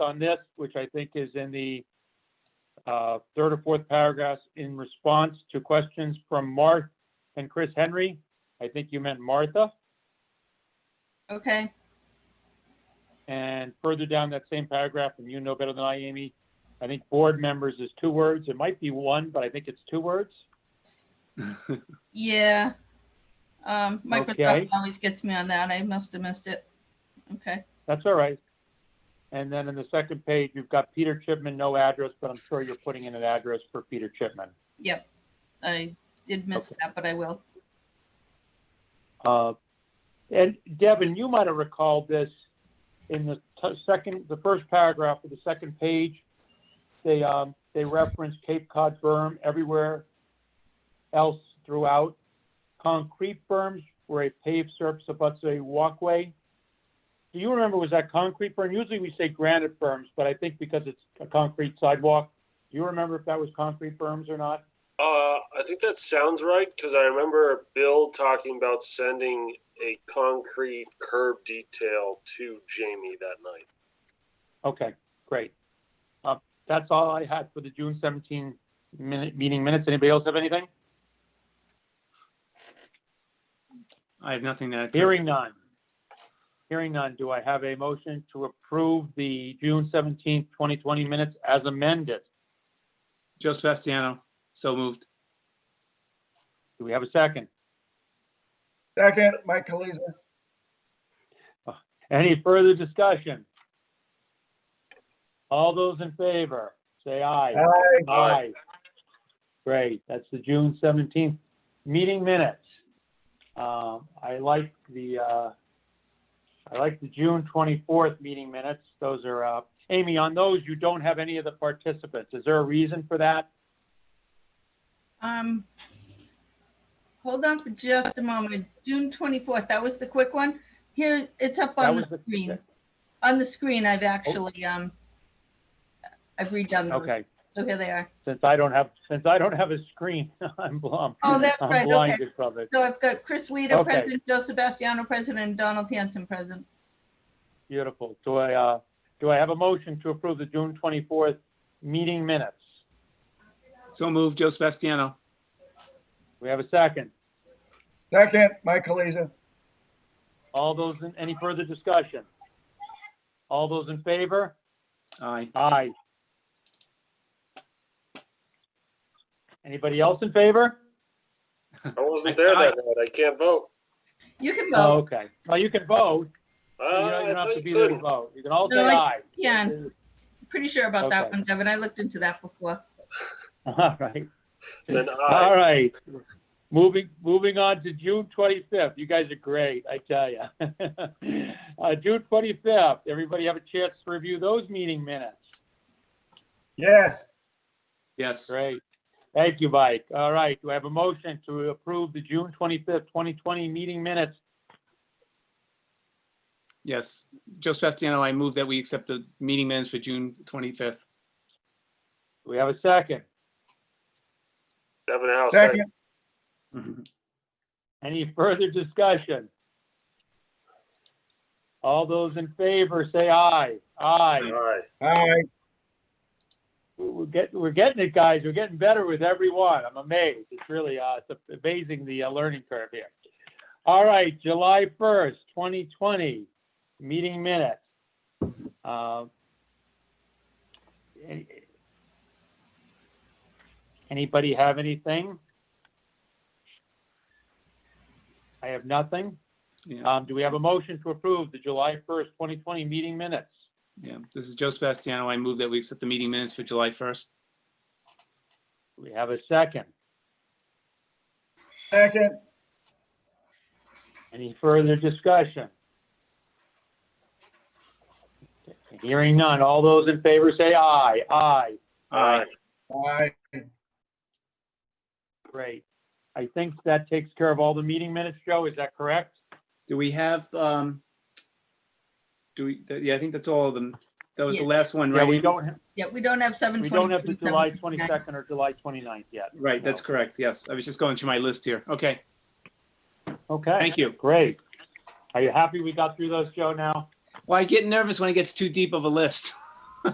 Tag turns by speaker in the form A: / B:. A: on this, which I think is in the uh, third or fourth paragraph, in response to questions from Mark and Chris Henry. I think you meant Martha.
B: Okay,
A: And further down that same paragraph, and you know better than I, Amy, I think board members is two words. It might be one, but I think it's two words.
B: yeah. Um, Microsoft
A: Okay.
B: always gets me on that. I must have missed it. Okay,
A: That's all right. And then in the second page, you've got Peter Chipman, no address, but I'm sure you're putting in an address for Peter Chipman.
B: yep. I did miss that, but I will.
A: Uh, And Devin, you might have recalled this in the t- second, the first paragraph of the second page. They, um, they reference Cape Cod berm everywhere else throughout. Concrete berms where a paved surface abuts a walkway. Do you remember, was that concrete berm? Usually we say granite berms, but I think because it's a concrete sidewalk, do you remember if that was concrete berms or not?
C: Uh, I think that sounds right because I remember Bill talking about sending a concrete curb detail to Jamie that night.
A: Okay, great. Uh, That's all I had for the June 17 minute, meeting minutes. Anybody else have anything?
D: I have nothing to add. Chris.
A: Hearing none. Hearing none. Do I have a motion to approve the June 17, 2020 minutes as amended?
D: Joe Sebastiano, so moved.
A: Do we have a second?
E: Second, Mike Kaliza.
A: Any further discussion? All those in favor, say aye.
E: Aye.
A: Aye. Great, that's the June seventeenth meeting minutes. Um, I like the, uh, I like the June twenty-fourth meeting minutes. Those are, uh, Amy, on those, you don't have any of the participants. Is there a reason for that?
B: Um, hold on for just a moment. June twenty-fourth, that was the quick one. Here, it's up
A: That
B: on the
A: was the-
B: screen. On the screen, I've actually, um, I've redone them.
A: Okay,
B: So here they are.
A: since I don't have, since I don't have a screen, I'm blind.
B: Oh, that's right, okay.
A: I'm blinded from it.
B: So I've got Chris Weider,
A: Okay.
B: President, Joe Sebastiano, President, and Donald Hanson, President.
A: Beautiful. Do I, uh, do I have a motion to approve the June twenty-fourth meeting minutes?
D: So moved, Joe Sebastiano.
A: We have a second.
E: Second, Mike Kaliza.
A: All those, in any further discussion? All those in favor?
D: Aye.
A: Aye. Anybody else in favor?
C: I wasn't there that night. I can't vote.
B: You can
A: Oh,
B: vote.
A: okay. Well, you can vote.
C: Uh,
A: You don't-
C: I
A: you don't have
C: thought
A: to
C: you
A: be there to
C: couldn't.
A: vote. You can all say
B: No, I-
A: aye.
B: Yeah, I'm pretty sure about that
A: Okay.
B: one, Devin. I looked into that before.
A: All right.
C: Then aye.
A: All right. Moving, moving on to June twenty-fifth. You guys are great, I tell you. Uh, June twenty-fifth, everybody have a chance to review those meeting minutes.
E: Yes,
D: Yes.
A: Great. Thank you, Mike. All right, do I have a motion to approve the June twenty-fifth, twenty twenty meeting minutes?
D: Yes. Joe Sebastiano, I move that we accept the meeting minutes for June 25th.
A: Do we have a second?
C: Devin House.
E: second,
A: Any further discussion? All those in favor, say aye. Aye.
C: Aye.
E: aye,
A: We're getting, we're getting it, guys. We're getting better with every one. I'm amazed. It's really, uh, it's amazing the uh, learning curve here. All right, July first, twenty twenty, meeting minutes. Um, any- Anybody have anything? I have nothing.
D: Yeah.
A: Um, do we have a motion to approve the July first, twenty twenty meeting minutes?
D: Yeah. This is Joe Sebastiano. I move that we accept the meeting minutes for July 1st.
A: Do we have a second?
E: second,
A: Any further discussion? Hearing none. All those in favor say aye. Aye.
C: Aye.
E: aye,
A: Great. I think that takes care of all the meeting minutes, Joe. Is that correct?
D: Do we have, um, do we, yeah, I think that's all of them. That was the
B: Yeah.
D: last one,
A: Yeah,
D: right?
A: we
D: Amy?
A: don't,
B: Yeah, we don't have seven
A: we
B: twenty.
A: don't have the July 22nd or July 29th yet.
D: Right, that's correct. Yes. I was just going through my list here. Okay.
A: Okay.
D: Thank you.
A: Great. Are you happy we got through those, Joe, now?
D: Well, I get nervous when it gets too deep of a list.